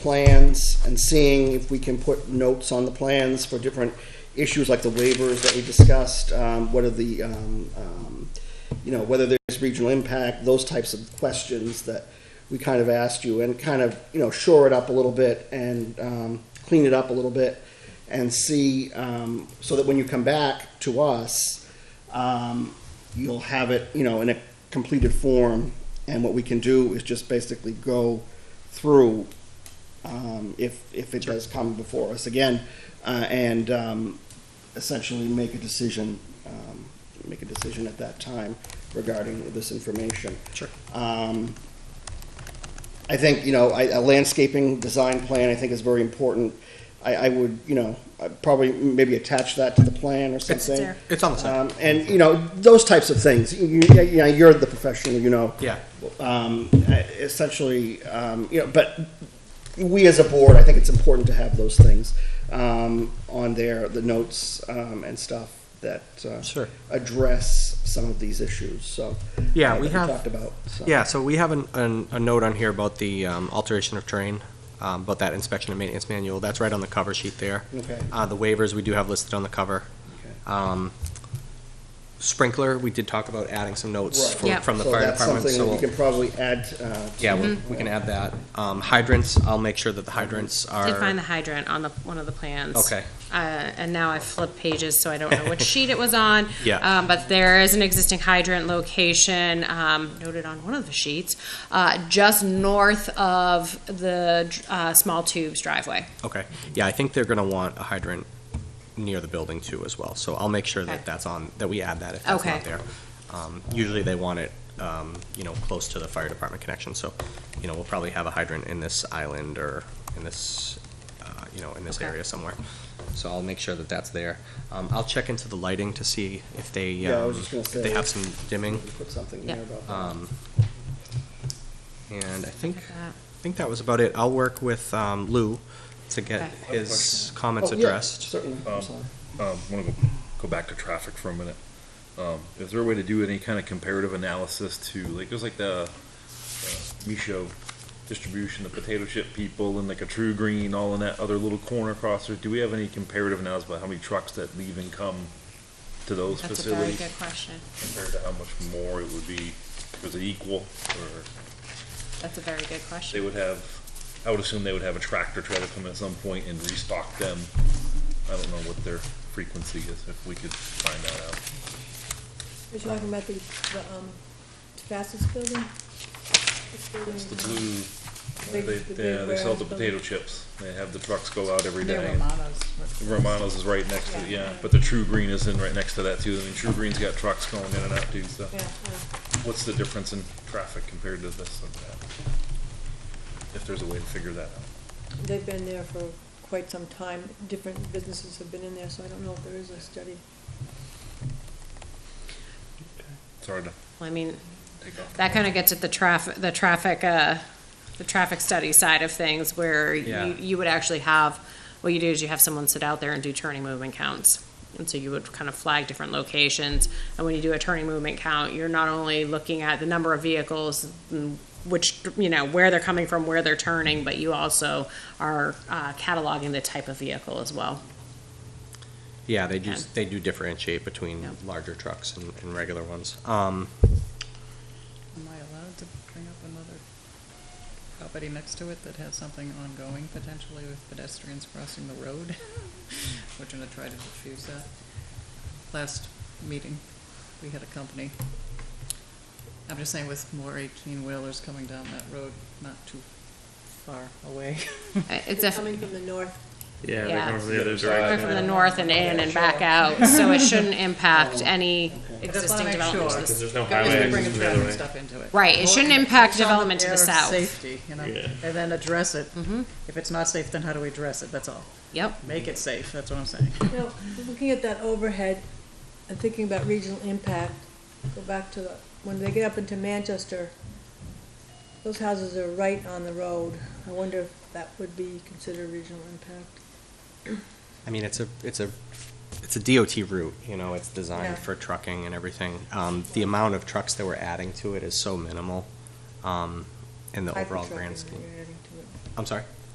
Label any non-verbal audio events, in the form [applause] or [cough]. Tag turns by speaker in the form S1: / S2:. S1: plans and seeing if we can put notes on the plans for different issues like the waivers that we discussed, um, what are the, um, um, you know, whether there's regional impact, those types of questions that we kind of asked you and kind of, you know, shore it up a little bit and um, clean it up a little bit and see, um, so that when you come back to us, um, you'll have it, you know, in a completed form. And what we can do is just basically go through um, if, if it does come before us again, uh, and um, essentially make a decision, um, make a decision at that time regarding this information.
S2: Sure.
S1: Um, I think, you know, I- a landscaping design plan, I think, is very important. I, I would, you know, I'd probably maybe attach that to the plan or something.
S2: there. It's on the side.
S1: Um, And, you know, those types of things. You, you you know, you're the professional, you know
S2: Yeah.
S1: um, essentially, um, you know, but we as a board, I think it's important to have those things um, on there, the notes um, and stuff that uh,
S2: Sure.
S1: address some of these issues. So
S2: Yeah,
S1: uh,
S2: we
S1: that
S2: have-
S1: talked about. So.
S2: Yeah, so we have an, an, a note on here about the um, alteration of terrain, um, about that inspection and maintenance manual. That's right on the cover sheet there.
S1: Okay.
S2: Uh, the waivers we do have listed on the cover.
S1: Okay.
S2: Um, sprinkler, we did talk about adding some notes
S1: Right.
S2: from,
S3: Yep.
S2: from the
S1: so
S2: fire
S1: that's
S2: department.
S1: something
S2: so
S1: that
S2: we'll-
S1: you can probably add. Uh, to
S2: yeah, we we can add that. Um, hydrants, I'll make sure that the hydrants are.
S3: Did find the hydrant on the, one of the plans.
S2: Okay.
S3: Uh, and now I flipped pages, so I don't know which sheet it was on.
S2: Yeah.
S3: Um, but there is an existing hydrant location, um, noted on one of the sheets, uh, just north of the, uh, small tubes driveway.
S2: Okay, yeah, I think they're gonna want a hydrant near the building too as well, so I'll make sure
S3: Okay.
S2: that that's on, that we add that if that's
S3: Okay.
S2: not there. Um, usually they want it, um, you know, close to the fire department connection, so, you know, we'll probably have a hydrant in this island or in this, uh, you know, in this
S3: Okay.
S2: area somewhere. So I'll make sure that that's there. Um, I'll check into the lighting to see if they,
S1: Yeah, I was
S2: um,
S1: just gonna
S2: if they
S1: say-
S2: have some dimming.
S1: Put something
S3: Yeah.
S1: there about that.
S2: Um, and I think,
S3: Look at that.
S2: I think that was about it. I'll work with um, Lou to get
S3: Okay.
S2: his
S1: Oh,
S2: comments
S1: yeah,
S2: addressed.
S1: certainly. I'm
S4: Um,
S1: sorry.
S4: Um, I want to go back to traffic for a minute. Um, is there a way to do any kind of comparative analysis to, like, there's like the uh, Micho distribution, the potato chip people, and like a True Green, all in that other little corner across there? Do we have any comparative analysis about how many trucks that leave and come to those
S3: That's a very
S4: facilities
S3: good question.
S4: compared to how much more it would be? Was it equal, or
S3: That's a very good question.
S4: they would have? I would assume they would have a tractor trailer come in at some point and restock them. I don't know what their frequency is. If we could find that out.
S5: You're talking about the, the, um, Tobascus building? This building
S4: It's the
S5: is-
S4: blue,
S5: Big-
S4: they,
S5: the big
S4: yeah, they sell the
S5: warehouse
S4: potato chips. They have the trucks go out every
S6: They're
S4: day.
S6: Romano's.
S4: Romano's is right next to, yeah, but the True Green is in right next to that too. I mean, True Green's got trucks going in and out too, so.
S5: Yeah, uh, yeah.
S4: What's the difference in traffic compared to this and that? If there's a way to figure that out.
S5: They've been there for quite some time. Different businesses have been in there, so I don't know if there is a study.
S4: Sorry to
S3: Well, I mean,
S4: take off.
S3: that kind of gets at the traffic, the traffic, uh, the traffic study side of things where
S2: Yeah.
S3: you, you would actually have, what you do is you have someone sit out there and do turning movement counts. And so you would kind of flag different locations. And when you do a turning movement count, you're not only looking at the number of vehicles, and which, you know, where they're coming from, where they're turning, but you also are uh, cataloging the type of vehicle as well.
S2: Yeah, they do,
S3: Yeah.
S2: they do differentiate between
S3: Yep.
S2: larger trucks and, and regular ones. Um,
S6: Am I allowed to bring up another property next to it that has something ongoing potentially with pedestrians crossing the road? We're gonna try to diffuse that. Last meeting, we had a company. I'm just saying with more eighteen-wheelers coming down that road, not too far away. [laughs]
S3: It's
S5: They're
S3: definitely.
S5: coming from the north.
S3: Yeah.
S7: Yeah, they're coming from the other
S3: Coming
S7: direction.
S3: from the north and in and back out, so it shouldn't impact
S1: Okay.
S3: any
S6: Just wanna
S3: existing
S6: make
S3: developments.
S6: sure.
S3: to the
S7: Because there's no
S6: Guys,
S7: highway
S6: we bring
S7: access the other
S6: traffic
S7: way.
S6: stuff into it.
S3: Right, it shouldn't impact
S6: It's on
S3: development to the
S6: their
S3: south.
S6: Safety, you know,
S7: Yeah.
S6: and then address it. If it's not safe, then how do we address it? That's all.
S3: Mm-hmm. Yep,
S6: Make it safe, that's what I'm saying.
S5: Now, looking at that overhead and thinking about regional impact, go back to the, when they get up into Manchester, those houses are right on the road. I wonder if that would be considered regional impact.
S2: I mean, it's a, it's a, it's a DOT route, you know, it's
S5: Yeah.
S2: designed for trucking and everything. Um, the amount of trucks that we're adding to it is so minimal, um, in the
S5: Type of
S2: overall
S5: trucking
S2: grand
S5: that
S2: scheme.
S5: you're adding to it.
S2: I'm sorry?